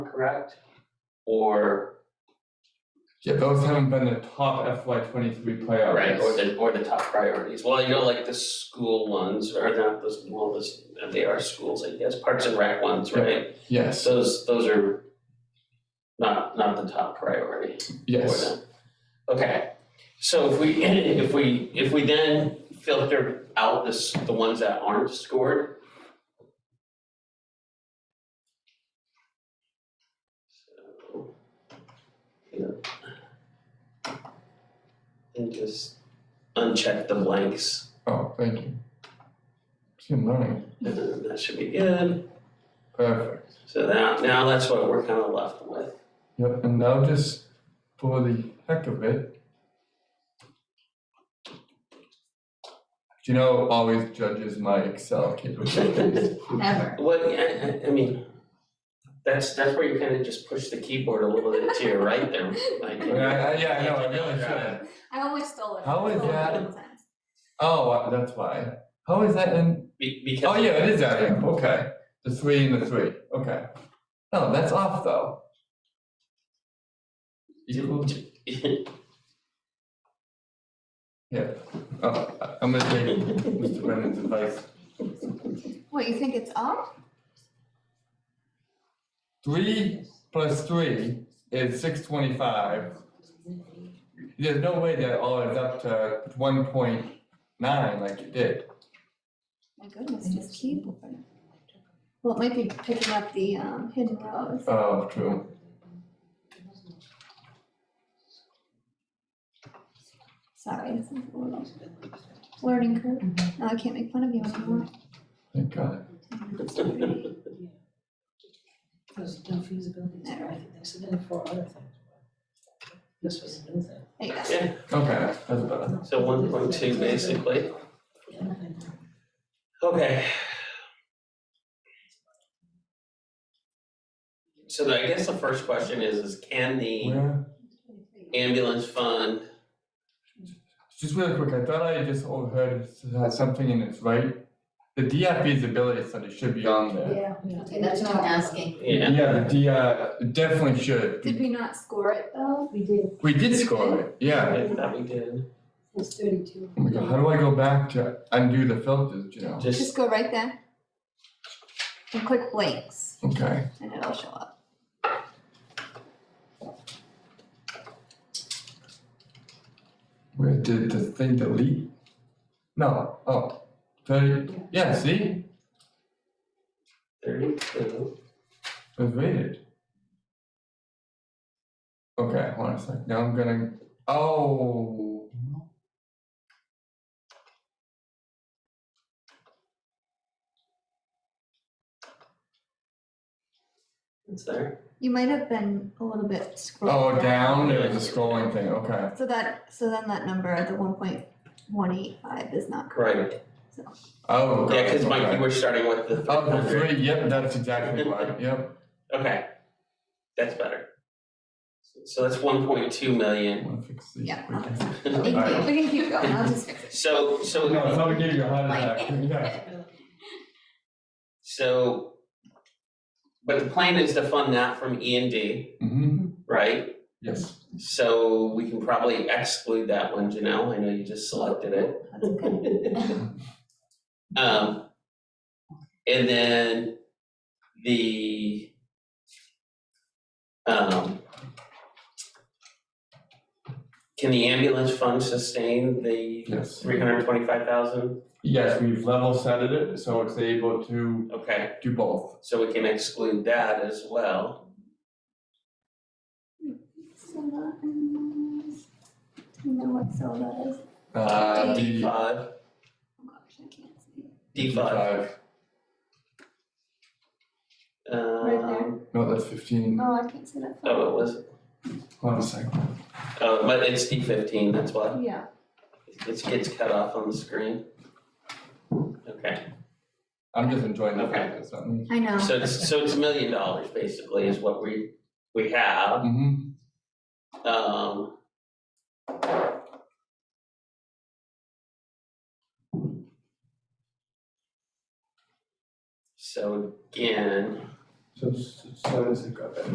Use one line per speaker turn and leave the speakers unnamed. correct? Or,
Yeah, those haven't been the top FY twenty-three
right,
priorities.
or the, or the top priorities, well, you know, like the school ones, or not the, well, this, they are schools, I guess, parks and rec ones, right?
Yes,
Those, those are not, not the top priority. for
yes,
them. Okay, so if we, if we, if we then filter out this, the ones that aren't scored. So, yeah. And just uncheck the blanks,
oh, thank you. See, I'm learning,
and then that should be good,
perfect.
so now, now that's what we're kind of left with.
Yep, and now just for the heck of it. Do you know always judges my Excel capabilities?
Ever.
Well, I, I, I mean, that's, that's where you kind of just push the keyboard a little bit to your right there, like.
Yeah, I- yeah, I know, I really should.
I almost stole it.
How is
Stole it
that-
one time.
Oh, that's why. How is that in,
Be- because.
oh, yeah, it is out here, okay. The three and the three, okay. No, that's off though. Equal, yeah, oh, I- I'm gonna take Mr. Brennan's advice.
What, you think it's off?
Three plus three is six twenty-five. There's no way that all adds up to one point nine like you did.
My goodness, just keyboard. Well, it might be picking up the um, hidden rows.
Oh, true.
Sorry, this is a little learning curve. Now I can't make fun of you anymore.
Thank God.
There's no feasibility study, I think they submitted four other things. This was a new thing.
There you go.
Okay, that's better.
So one point two basically,
The other thing,
okay. So the- I guess the first question is, is can the
Where,
ambulance fund,
just really quick, I thought I just overheard it had something in its right. The DI feasibility study should be on there.
Yeah.
yeah.
Okay, that's not asking.
yeah,
Yeah, the DI definitely should.
Did we not score it though?
We did,
We did score it, yeah.
if that we did,
it's thirty-two.
Oh my God, how do I go back to undo the filters, you know?
just,
Just go right there. And click blanks
Okay,
and it'll show up.
where did the thing delete? No, oh, thirty, yeah, see,
thirty-two,
it was rated. Okay, hold on a sec, now I'm gonna, oh.
it's there.
You might have been a little bit
Oh,
scrolled
down, there was a scrolling thing, okay,
So that, so then that number, the one point one eight five is not correct.
Right,
oh.
yeah, cause
God,
Mike,
okay.
you were starting with the three
Oh, the
hundred,
three, yep, that's exactly right, yep,
okay, that's better. So that's one point two million,
wanna fix these?
Yeah.
We can-
We can keep- we can keep going, I'll just fix it.
so, so.
No, it's not giving you a heart
Like-
attack, yeah.
So, but the plan is to fund that from E and D,
Mm-hmm,
right?
yes,
So we can probably exclude that one, Janelle, I know you just selected it.
That's okay.
Um, and then the um, can the ambulance fund sustain the
yes.
three hundred twenty-five thousand?
Yes, we've level set it, so it's able to
Okay,
do both.
so we can exclude that as well.
So that is, you know what cell that is?
Uh,
D
D
five,
Oh gosh, I can't see.
D five,
there.
um,
No, that's fifteen.
Oh, I can't see that. far.
oh, it was
Hold on a second.
Oh, but it's D fifteen, that's why.
Yeah,
It gets cut off on the screen. Okay,
I'm just enjoying the
Okay.
fact that it's not me.
I know.
so it's, so it's a million dollars basically is what we, we have,
Mm-hmm.
um. So again.
So, so does it go